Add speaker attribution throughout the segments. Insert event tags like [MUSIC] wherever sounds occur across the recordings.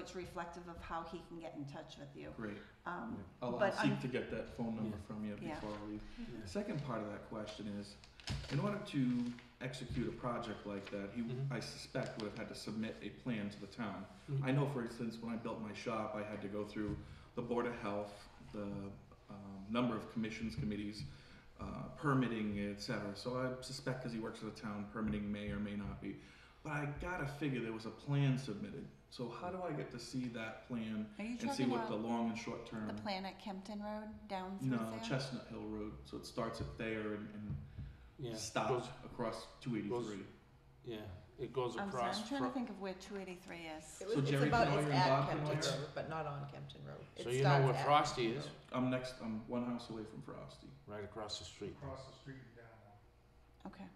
Speaker 1: It's reflective of how he can get in touch with you.
Speaker 2: Great.
Speaker 1: Um,
Speaker 2: I'll I'll
Speaker 1: But I'm-
Speaker 2: seek to get that phone number
Speaker 3: Yeah.
Speaker 2: from you
Speaker 1: Yeah.
Speaker 2: before I leave.
Speaker 3: Yeah.
Speaker 2: The Second part of that question is, in order to execute a project like that, he,
Speaker 3: Mhm.
Speaker 2: I suspect, would have had to submit a plan to the town.
Speaker 3: Mhm.
Speaker 2: I know, for instance, when I built my shop, I had to go through the Board of Health, the um, number of commissions, committees, uh, permitting, et cetera. So I suspect because he works for the town, permitting may or may not be. But I gotta figure there was a plan submitted. So how do I get to see that plan
Speaker 1: Are you
Speaker 2: and see
Speaker 1: talking
Speaker 2: what the
Speaker 1: about
Speaker 2: long and short term?
Speaker 1: the plan at Kempton Road down through
Speaker 2: No,
Speaker 1: there?
Speaker 2: Chestnut Hill Road. So it starts at there and, and
Speaker 3: Yeah.
Speaker 2: stops
Speaker 3: Goes,
Speaker 2: across 283.
Speaker 3: yeah. It goes
Speaker 1: I'm sorry,
Speaker 3: across.
Speaker 1: I'm trying to
Speaker 3: fro-
Speaker 1: think of where two eighty-three is.
Speaker 4: It
Speaker 2: So
Speaker 4: was, it's
Speaker 2: Jerry,
Speaker 4: about,
Speaker 2: do you know
Speaker 4: it's
Speaker 2: you're
Speaker 4: at
Speaker 2: involved in
Speaker 4: Kempton
Speaker 2: this?
Speaker 4: Road, but not on Kempton Road. It
Speaker 3: So you know
Speaker 4: starts
Speaker 3: where
Speaker 4: at
Speaker 3: Frosty
Speaker 4: Kempton
Speaker 3: is,
Speaker 4: Road.
Speaker 2: I'm next. I'm one house away from Frosty.
Speaker 3: right across the street.
Speaker 5: across the street and down.
Speaker 1: Okay.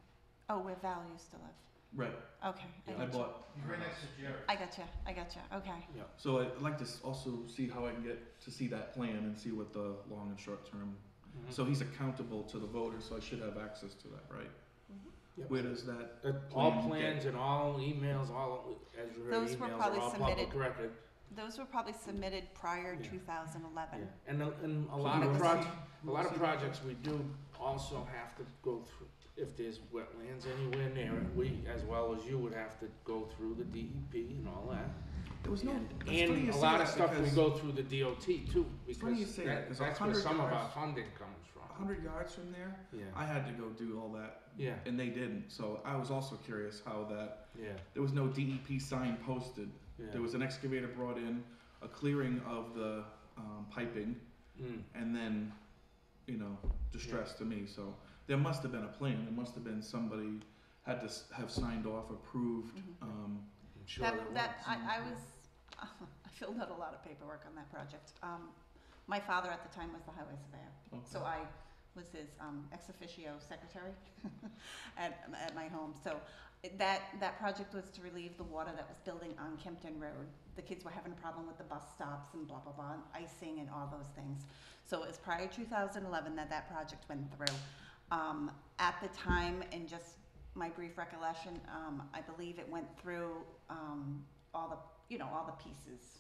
Speaker 1: Oh, where Val used to live.
Speaker 2: Right.
Speaker 1: Okay, I
Speaker 3: Yeah.
Speaker 2: I
Speaker 1: gotcha.
Speaker 2: bought.
Speaker 5: He's right next to Jerry.
Speaker 1: I gotcha, I gotcha, okay.
Speaker 2: So I'd like to s- also see how I can get to see that plan and see what the long and short term.
Speaker 3: Mhm.
Speaker 2: So he's accountable to the voter, so I should have access to that, right?
Speaker 4: Mhm.
Speaker 3: Yep.
Speaker 2: Where does that?
Speaker 3: Uh, all
Speaker 2: plan
Speaker 3: plans
Speaker 2: get-
Speaker 3: and all emails, all as your
Speaker 1: Those were
Speaker 3: emails are
Speaker 1: probably
Speaker 3: all
Speaker 1: submitted-
Speaker 3: public record.
Speaker 1: Those were probably submitted prior
Speaker 3: Yeah.
Speaker 1: two thousand
Speaker 3: Yeah.
Speaker 1: eleven.
Speaker 3: And a, and a
Speaker 2: So
Speaker 3: lot
Speaker 2: we
Speaker 3: of
Speaker 2: will
Speaker 3: proj-
Speaker 2: see-
Speaker 3: a
Speaker 2: we will
Speaker 3: lot of
Speaker 2: see-
Speaker 3: projects we do also have to go through. If there's wetlands anywhere near it, we as well as you would have to go through the DEP and all that.
Speaker 2: There was no. it's funny
Speaker 3: And
Speaker 2: you
Speaker 3: a
Speaker 2: say
Speaker 3: lot of
Speaker 2: that
Speaker 3: stuff we
Speaker 2: because
Speaker 3: go through the DOT too,
Speaker 2: funny you
Speaker 3: because
Speaker 2: say that,
Speaker 3: that,
Speaker 2: 'cause a
Speaker 3: that's where
Speaker 2: hundred
Speaker 3: some of our
Speaker 2: yards-
Speaker 3: funding comes from.
Speaker 2: 100 yards from there,
Speaker 3: Yeah,
Speaker 2: I had to go do all that,
Speaker 3: yeah,
Speaker 2: and they didn't. So I was also curious how that.
Speaker 3: yeah,
Speaker 2: There was no DEP sign posted.
Speaker 3: yeah.
Speaker 2: There was an excavator brought in, a clearing of the um, piping,
Speaker 3: Mm,
Speaker 2: and then, you know, distress to me. So there must have been a plan. There must have been somebody had to s- have signed off, approved.
Speaker 1: Mhm.
Speaker 2: Um,
Speaker 3: I'm sure
Speaker 1: That, that,
Speaker 3: was.
Speaker 1: I, I was, [LAUGHS] I filled out a lot of paperwork on that project. Um, my father at the time was the highway surveyor. So I was his um, ex officio secretary [LAUGHS] at, at my home. So that, that project was to relieve the water that was building on Kempton Road. The kids were having a problem with the bus stops and blah, blah, blah, and icing and all those things. So it was prior to 2011 that that project went through. Um, at the time, and just my brief recollection, um, I believe it went through um, all the, you know, all the pieces.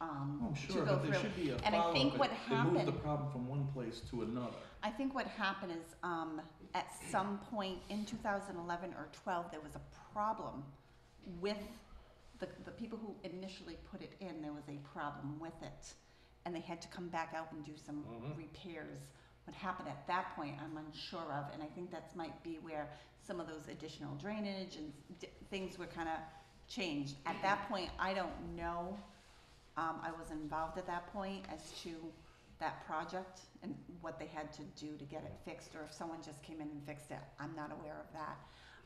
Speaker 1: Um,
Speaker 2: Oh, I'm
Speaker 1: to
Speaker 2: sure,
Speaker 1: go
Speaker 2: but
Speaker 1: through.
Speaker 2: there should be a
Speaker 1: And I
Speaker 2: follow-up.
Speaker 1: think what
Speaker 2: They moved the
Speaker 1: happened-
Speaker 2: problem from one place to another.
Speaker 1: I think what happened is, um, at some point in two thousand eleven or twelve, there was a problem with the, the people who initially put it in, there was a problem with it. And they had to come back out and do some
Speaker 3: Mhm.
Speaker 1: repairs. What happened at that point, I'm unsure of, and I think that's might be where some of those additional drainage and d- things were kinda changed. At that point, I don't know, um, I was involved at that point as to that project and what they had to do to get it fixed, or if someone just came in and fixed it, I'm not aware of that.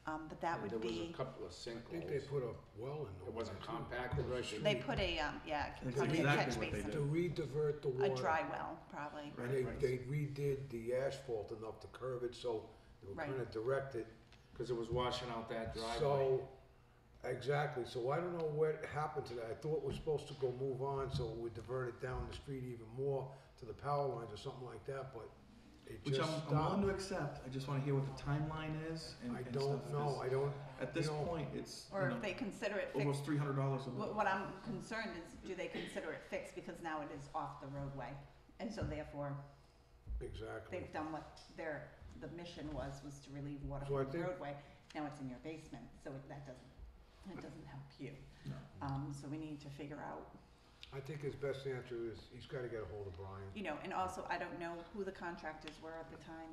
Speaker 1: Um, but that
Speaker 3: Yeah,
Speaker 1: would be.
Speaker 3: There was a couple of
Speaker 6: I think they
Speaker 3: sinkholes.
Speaker 6: put a well in.
Speaker 3: It wasn't
Speaker 6: over there, too,
Speaker 3: compacted,
Speaker 6: across the
Speaker 3: right?
Speaker 1: They
Speaker 6: street
Speaker 1: put a, um, yeah,
Speaker 2: That's
Speaker 1: probably a
Speaker 2: exactly
Speaker 1: catch
Speaker 2: what they
Speaker 1: basin,
Speaker 2: did.
Speaker 6: To re-divert the
Speaker 1: a
Speaker 6: water.
Speaker 1: dry well, probably.
Speaker 6: And they, they redid the asphalt enough to curve it, so they were
Speaker 1: Right.
Speaker 6: kinda directed,
Speaker 3: Cause it was washing out that driveway.
Speaker 6: so, exactly, so I don't know what happened to that, I thought we're supposed to go move on, so we divert it down the street even more to the power lines or something like that, but it
Speaker 2: Which
Speaker 6: just
Speaker 2: I'm,
Speaker 6: stopped.
Speaker 2: I'm willing to accept. I just want to hear what the timeline is and,
Speaker 6: I
Speaker 2: and stuff.
Speaker 6: don't know, I don't,
Speaker 2: At this
Speaker 6: you know,
Speaker 2: point, it's you
Speaker 1: Or
Speaker 2: know,
Speaker 1: if they consider it fixed,
Speaker 2: almost three hundred dollars a month.
Speaker 1: what, what I'm concerned is, do they consider it fixed because now it is off the roadway? And so therefore,
Speaker 6: exactly,
Speaker 1: they've done what their, the mission was, was to relieve water
Speaker 6: So I
Speaker 1: from the
Speaker 6: think-
Speaker 1: roadway. Now it's in your basement, so it- that doesn't, that doesn't help you.
Speaker 2: No.
Speaker 1: Um, so we need to figure out,
Speaker 6: I think his best answer is, he's gotta get a hold of Brian.
Speaker 1: you know, and also I don't know who the contractors were at the time.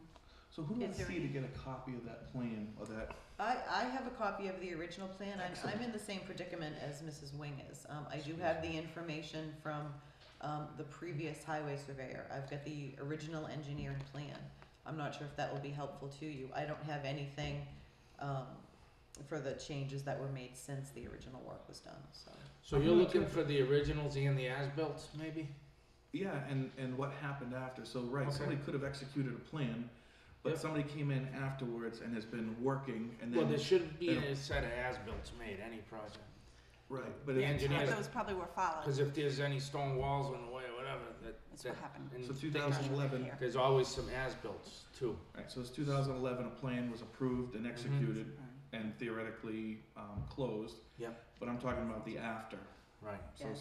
Speaker 2: So who do I
Speaker 1: Is there
Speaker 2: see to get a copy of that plan or that?
Speaker 4: I, I have a copy of the original plan. I'm, I'm
Speaker 2: Excellent.
Speaker 4: in the same predicament as Mrs. Wing is. Um, I do have the information from, um, the previous highway surveyor. I've got the original engineered plan. I'm not sure if that will be helpful to you. I don't have anything, um, for the changes that were made since the original work was done, so.
Speaker 3: So you're looking for the originals and the as-built, maybe?
Speaker 2: Yeah, and and what happened after? So right,
Speaker 3: Okay.
Speaker 2: somebody could have executed a plan, but
Speaker 3: Yep.
Speaker 2: somebody came in afterwards and has been working, and
Speaker 3: Well,
Speaker 2: then
Speaker 3: there should be
Speaker 2: then-
Speaker 3: a set of as-bills made, any project.
Speaker 2: right, but
Speaker 3: the
Speaker 2: it's-
Speaker 3: engineers-
Speaker 1: Those probably were followed,
Speaker 3: Cause if there's any stone walls on the way or whatever, that,
Speaker 1: That's what
Speaker 3: that.
Speaker 1: happened.
Speaker 3: and
Speaker 2: So
Speaker 3: things-
Speaker 2: 2011.
Speaker 1: Here.
Speaker 3: There's always some as-bilts too.
Speaker 2: right, so it's 2011. A plan was approved
Speaker 3: Mm-hmm.
Speaker 2: and executed and theoretically um, closed.
Speaker 3: Yep.
Speaker 2: But I'm talking about the after.
Speaker 3: Right.
Speaker 2: So
Speaker 1: Yeah.